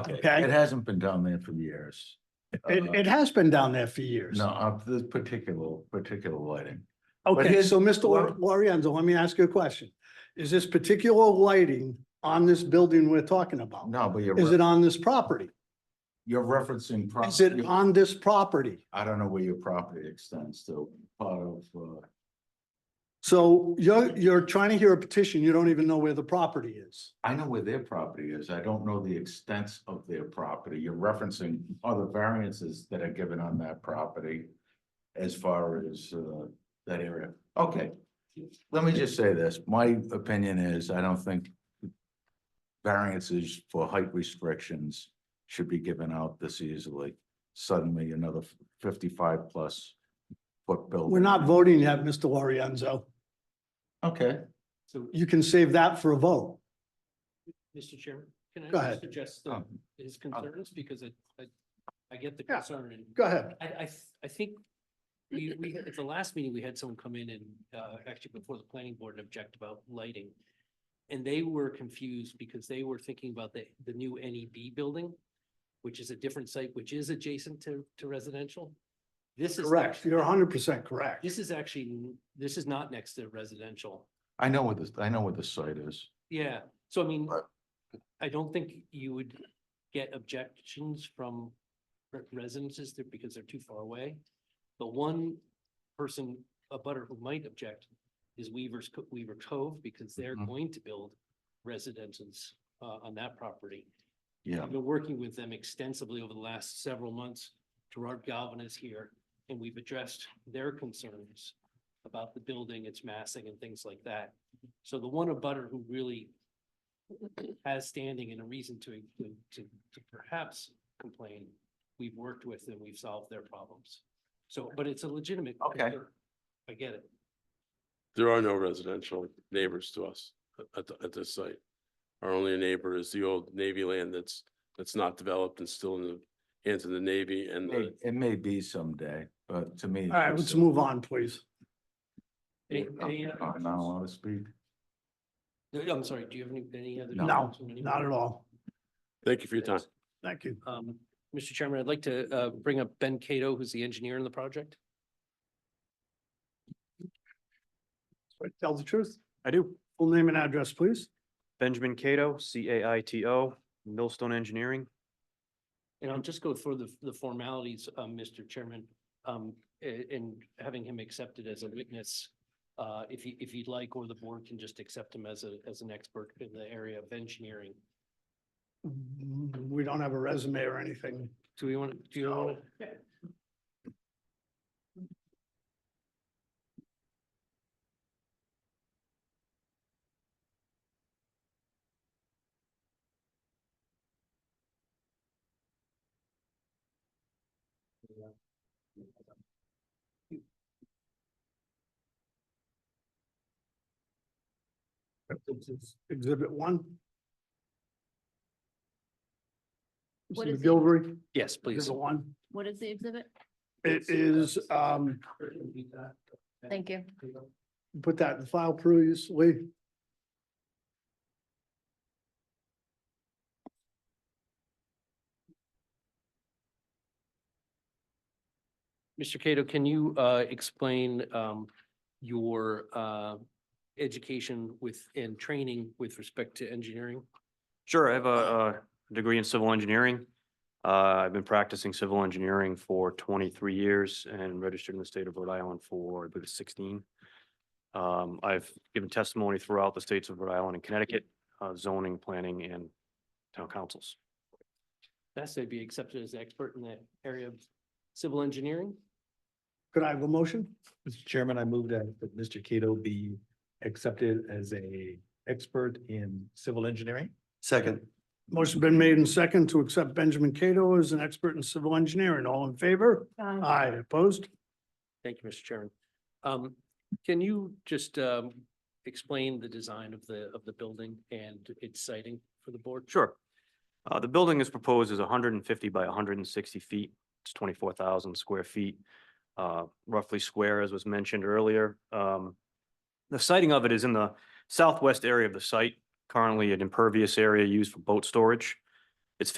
Okay, Okay. it hasn't been down there for years. It, Uh, it has been down there for years. No, of this particular, particular lighting. Okay, his- so Mr. Lor- Lor- Lorenzo, let me ask you a question. Is this particular lighting on this building we're talking about? No, but you're, Is re- it on this property? you're referencing. pro- Is it you- on this property? I don't know where your property extends to, part of, uh, So you're, you're trying to hear a petition, you don't even know where the property is. I know where their property is. I don't know the extents of their property. You're referencing other variances that are given on that property as far as, uh, that area. Okay. Let me just say this. My opinion is I don't think variances for height restrictions should be given out this easily. Suddenly another fifty-five plus foot building. We're not voting yet, Mr. Lorenzo. Okay, So, You can save that for a vote. Mr. Chairman, can I Go just ahead. Um, suggest the- Oh, his concerns, because I, I, I get the Yeah. concern, and Go ahead. I, I, th- I think we, we, at the last meeting, we had someone come in and, uh, actually before the planning board and object about lighting. And they were confused because they were thinking about the, the new NEB building, which is a different site, which is adjacent to, to residential. This is. Correct. actually- You're hundred percent correct. This is actually, this is not next to residential. I know what this, I know what the site is. Yeah, so I mean, Right. I don't think you would get objections from re- residences there because they're too far away. The one person, a butter who might object is Weaver's, Co- Weaver Cove, because they're Mhm. going to build residences uh, on that property. Yeah. I've been working with them extensively over the last several months. Gerard Galvin is here, and we've addressed their concerns about the building, its massing and things like that. So the one abutter who really has standing and a reason to, to, to perhaps complain, we've worked with and we've solved their problems. So, but it's a legitimate. Okay. concern. I get it. There are no residential neighbors to us a- at, the- at this site. Our only neighbor is the old Navy land that's, that's not developed and still in the hands of the Navy and May- the, It may be someday, but to me. All right, let's move on, please. Any- I'm any other not allowed to speak. No, I'm sorry, do you have any, any other? No. comments from anyone? Not at all. thank you for your time. Thank you. Um, Mr. Chairman, I'd like to uh bring up Ben Cato, who's the engineer in the project. Tell the truth. I do. Full name and address, please. Benjamin Cato, C A I T O, Millstone Engineering. And I'll just go through the the formalities, um, Mr. Chairman, um, a- and having him accepted as a witness. Uh, if you, if you'd like, or the board can just accept him as a, as an expert in the area of engineering. Mm, We don't have a resume or anything. Do we want, to do you want? to? Exhibit one. What Mr. is it? McGilvery, Yes, please. exhibit one. What is the exhibit? It is, um, Thank you. put that in the file previously. Mr. Cato, can you uh, explain um, your uh, education with, and training with respect to engineering? Sure, I have a, uh degree in civil engineering. Uh, I've been practicing civil engineering for twenty-three years and registered in the state of Rhode Island for, I believe, it's sixteen. Um, I've given testimony throughout the states of Rhode Island and Connecticut, uh, zoning, planning, and town councils. Best they'd be accepted as an expert in the area of civil engineering? Could I have a motion? Mr. Chairman, I move that that Mr. Cato be accepted as a expert in civil engineering. Second. Motion been made in second to accept Benjamin Cato as an expert in civil engineering. All in favor? Aye, opposed? Thank you, Mr. Chairman. Um, Can you just um, explain the design of the, of the building and its siting for the board? Sure. Uh, the building is proposed as hundred and fifty by hundred and sixty feet. It's twenty-four thousand square feet, uh, roughly square, as was mentioned earlier. Um, the siting of it is in the southwest area of the site, currently an impervious area used for boat storage.